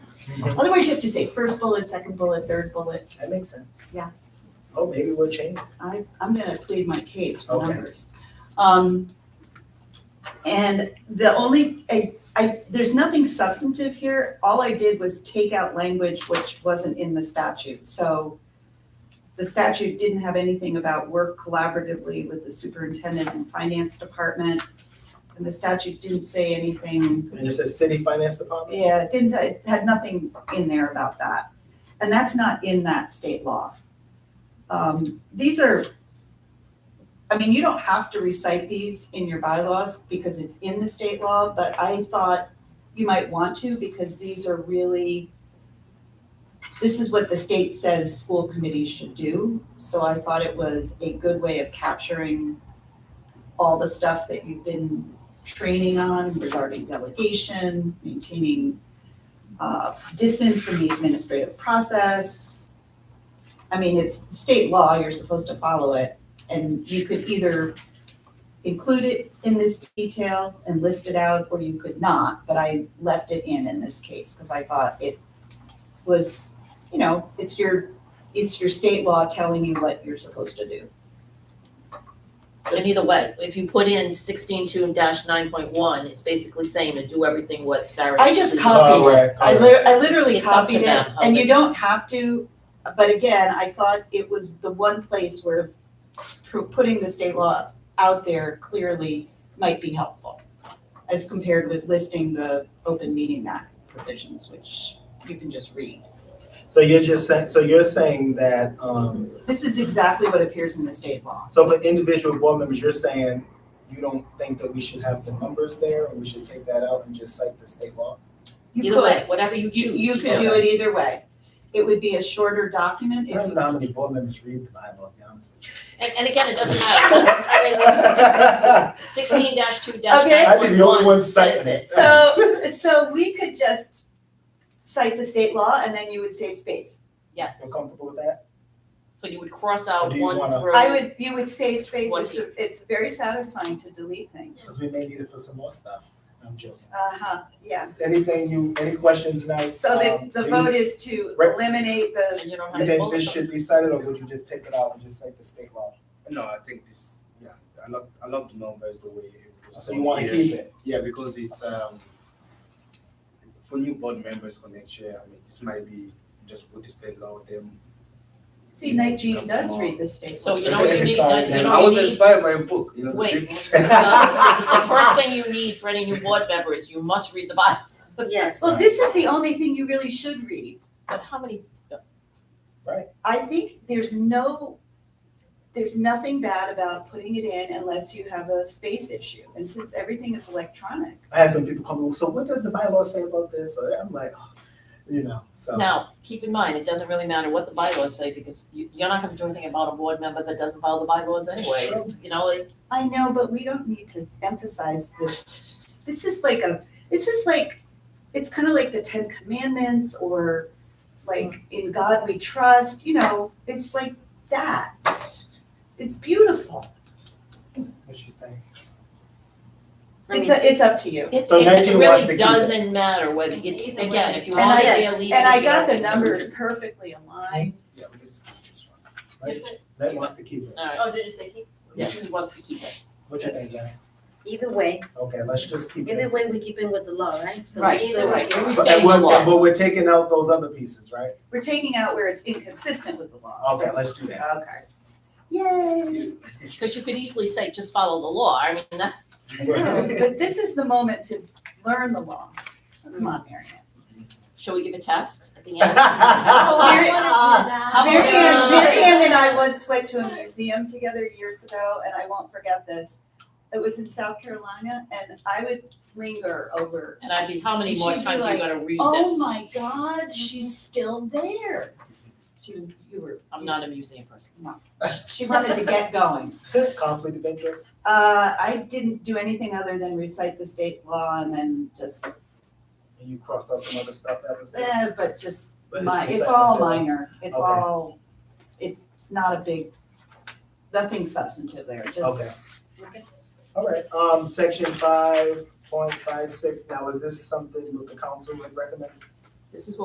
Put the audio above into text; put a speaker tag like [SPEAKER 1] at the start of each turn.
[SPEAKER 1] Otherwise, you have to say first bullet, second bullet, third bullet.
[SPEAKER 2] That makes sense.
[SPEAKER 1] Yeah.
[SPEAKER 2] Oh, maybe we'll change. it.
[SPEAKER 1] I, I'm gonna plead my case for
[SPEAKER 2] Okay.
[SPEAKER 1] numbers. Um, and the only, I, I, there's nothing substantive here. All I did was take out language which wasn't in the statute, so the statute didn't have anything about work collaboratively with the superintendent and finance department. And the statute didn't say anything,
[SPEAKER 2] And it says city finance department?
[SPEAKER 1] yeah, it didn't say, it had nothing in there about that. And that's not in that state law. Um, these are, I mean, you don't have to recite these in your bylaws because it's in the state law, but I thought you might want to because these are really, this is what the state says school committees should do. So I thought it was a good way of capturing all the stuff that you've been training on regarding delegation, maintaining uh, distance from the administrative process, I mean, it's state law, you're supposed to follow it, and you could either include it in this detail and list it out, or you could not, but I left it in in this case, because I thought it was, you know, it's your, it's your state law telling you what you're supposed to do.
[SPEAKER 3] So either way, if you put in sixteen two dash nine point one, it's basically saying to do everything what Sarah.
[SPEAKER 1] I just
[SPEAKER 3] said.
[SPEAKER 1] copied
[SPEAKER 2] Oh, right,
[SPEAKER 1] I
[SPEAKER 2] right.
[SPEAKER 1] lit- I literally
[SPEAKER 3] It's up to
[SPEAKER 1] copied it,
[SPEAKER 3] them,
[SPEAKER 1] and you
[SPEAKER 3] okay.
[SPEAKER 1] don't have to, but again, I thought it was the one place where pu- putting the state law out there clearly might be helpful, as compared with listing the open meeting act provisions, which you can just read.
[SPEAKER 2] So you're just saying, so you're saying that, um,
[SPEAKER 1] This is exactly what appears in the state law.
[SPEAKER 2] so for individual board members, you're saying you don't think that we should have the numbers there and we should take that out and just cite the state law?
[SPEAKER 1] You
[SPEAKER 3] Either
[SPEAKER 1] could,
[SPEAKER 3] way, whatever you choose
[SPEAKER 1] you
[SPEAKER 3] to
[SPEAKER 1] you could do it either way. It would be a shorter document
[SPEAKER 2] I
[SPEAKER 1] if
[SPEAKER 2] don't
[SPEAKER 1] you.
[SPEAKER 2] know how many board members read the bylaws, to be honest with you.
[SPEAKER 3] And, and again, it doesn't matter. I mean, sixteen two dash
[SPEAKER 1] Okay.
[SPEAKER 3] nine
[SPEAKER 2] I'd be
[SPEAKER 3] point
[SPEAKER 2] the only
[SPEAKER 3] one
[SPEAKER 2] one
[SPEAKER 3] says
[SPEAKER 2] citing
[SPEAKER 3] it.
[SPEAKER 2] it.
[SPEAKER 1] So, so we could just cite the state law and then you would save space.
[SPEAKER 3] Yes,
[SPEAKER 2] Feel comfortable with that?
[SPEAKER 3] so you would cross
[SPEAKER 2] Or
[SPEAKER 3] out
[SPEAKER 2] do you
[SPEAKER 3] one
[SPEAKER 2] wanna-
[SPEAKER 3] through.
[SPEAKER 1] I would, you would save space, it's, a- it's very satisfying to delete things.
[SPEAKER 2] Because we may need it for some more stuff. I'm joking.
[SPEAKER 1] Uh-huh, yeah,
[SPEAKER 2] Anything you, any questions tonight?
[SPEAKER 1] so the,
[SPEAKER 2] Um,
[SPEAKER 1] the
[SPEAKER 2] you-
[SPEAKER 1] vote is to
[SPEAKER 2] Right.
[SPEAKER 1] eliminate the,
[SPEAKER 3] And you don't
[SPEAKER 2] You
[SPEAKER 3] have to
[SPEAKER 2] think
[SPEAKER 3] bullet
[SPEAKER 2] this
[SPEAKER 3] them.
[SPEAKER 2] should be cited or would you just take it out and just cite the state law?
[SPEAKER 4] No, I think this. Yeah, I love I love the numbers the way it was.
[SPEAKER 2] So you want to
[SPEAKER 4] done
[SPEAKER 2] keep
[SPEAKER 4] here.
[SPEAKER 2] it?
[SPEAKER 4] Yeah, because it's um for new board members for next year. I mean, this might be just put the state law with them.
[SPEAKER 1] see, Nigel does read the state
[SPEAKER 3] So
[SPEAKER 1] law.
[SPEAKER 3] you know what you need, you
[SPEAKER 2] Sorry, Dan.
[SPEAKER 3] know
[SPEAKER 4] I
[SPEAKER 3] what
[SPEAKER 4] was
[SPEAKER 3] you need?
[SPEAKER 4] inspired by a book. You know, the
[SPEAKER 3] Wait.
[SPEAKER 4] books.
[SPEAKER 3] No, The first thing you need for any new board member is you must read the Bible.
[SPEAKER 5] Yes.
[SPEAKER 1] Well, this is the only thing you really should read.
[SPEAKER 3] But how many,
[SPEAKER 1] I think there's no, there's nothing bad about putting it in unless you have a space issue. And since everything is electronic,
[SPEAKER 2] I had some people come, so what does the bylaw say about this? So I'm like, oh, you know, so.
[SPEAKER 3] now, keep in mind, it doesn't really matter what the bylaws say, because you, you're not gonna do anything about a board member that doesn't follow the bylaws
[SPEAKER 2] It's
[SPEAKER 3] anyway.
[SPEAKER 2] true.
[SPEAKER 3] You know, like,
[SPEAKER 1] I know, but we don't need to emphasize this. This is like a, this is like, it's kind of like the Ten Commandments or like in God we trust, you know, it's like that. It's beautiful.
[SPEAKER 2] What you think?
[SPEAKER 5] I
[SPEAKER 1] It's, a- it's up to you.
[SPEAKER 3] it,
[SPEAKER 2] So
[SPEAKER 3] it- it
[SPEAKER 2] Nancy wants to
[SPEAKER 3] really
[SPEAKER 2] keep it.
[SPEAKER 3] doesn't matter whether, it's,
[SPEAKER 5] Either way.
[SPEAKER 3] again, if you
[SPEAKER 1] And
[SPEAKER 3] want
[SPEAKER 1] I-
[SPEAKER 3] it,
[SPEAKER 5] yes,
[SPEAKER 3] you leave it.
[SPEAKER 1] And
[SPEAKER 3] if
[SPEAKER 1] I
[SPEAKER 3] you
[SPEAKER 1] got
[SPEAKER 3] don't,
[SPEAKER 1] the
[SPEAKER 3] you
[SPEAKER 1] numbers perfectly aligned.
[SPEAKER 4] Yeah, we just keep this one.
[SPEAKER 2] Like, that wants to keep it.
[SPEAKER 3] don't. All right,
[SPEAKER 5] Oh, did you say keep?
[SPEAKER 3] yeah, he wants to keep it.
[SPEAKER 2] What you think, Jenny?
[SPEAKER 5] Either way,
[SPEAKER 2] Okay, let's just keep
[SPEAKER 5] either
[SPEAKER 2] it.
[SPEAKER 5] way, we keep in with the law, right? So
[SPEAKER 3] Right,
[SPEAKER 5] either
[SPEAKER 3] so
[SPEAKER 5] way.
[SPEAKER 3] right, we
[SPEAKER 2] But-
[SPEAKER 3] stay
[SPEAKER 2] and
[SPEAKER 3] in the
[SPEAKER 2] we're-
[SPEAKER 3] law.
[SPEAKER 2] But we're taking out those other pieces, right?
[SPEAKER 1] We're taking out where it's inconsistent with the law. so-
[SPEAKER 2] Okay, let's do that.
[SPEAKER 1] Okay. Yay.
[SPEAKER 3] Because you could easily say, just follow the law. I mean, that,
[SPEAKER 1] No, But this is the moment to learn the law. Come on, Mary Ann.
[SPEAKER 3] shall we give a test at the end?
[SPEAKER 5] Oh, I wanted to do
[SPEAKER 2] Ah,
[SPEAKER 5] that.
[SPEAKER 3] uh, how
[SPEAKER 1] Mary Ann,
[SPEAKER 3] about- uh,
[SPEAKER 1] Mary Ann and I once went to a museum together years ago, and I won't forget this. It was in South Carolina, and I would linger over,
[SPEAKER 3] And I'd be, how many more
[SPEAKER 1] She'd be
[SPEAKER 3] times are you
[SPEAKER 1] like,
[SPEAKER 3] gonna read this?
[SPEAKER 1] oh my God, she's still there. She was, you were,
[SPEAKER 3] I'm not a museum person.
[SPEAKER 1] she wanted to get going.
[SPEAKER 2] Conflict of interest?
[SPEAKER 1] Uh, I didn't do anything other than recite the state law and then just,
[SPEAKER 2] And you crossed out some other stuff that was.
[SPEAKER 1] eh, but just
[SPEAKER 2] but
[SPEAKER 1] Mi-
[SPEAKER 2] it's
[SPEAKER 1] it's all
[SPEAKER 2] still-
[SPEAKER 1] minor, it's
[SPEAKER 2] Okay.
[SPEAKER 1] all, it's not a big, nothing substantive there,
[SPEAKER 2] Okay.
[SPEAKER 1] just,
[SPEAKER 5] Okay.
[SPEAKER 2] All right, um, section five point five six, now is this something that the council would recommend?
[SPEAKER 3] This is what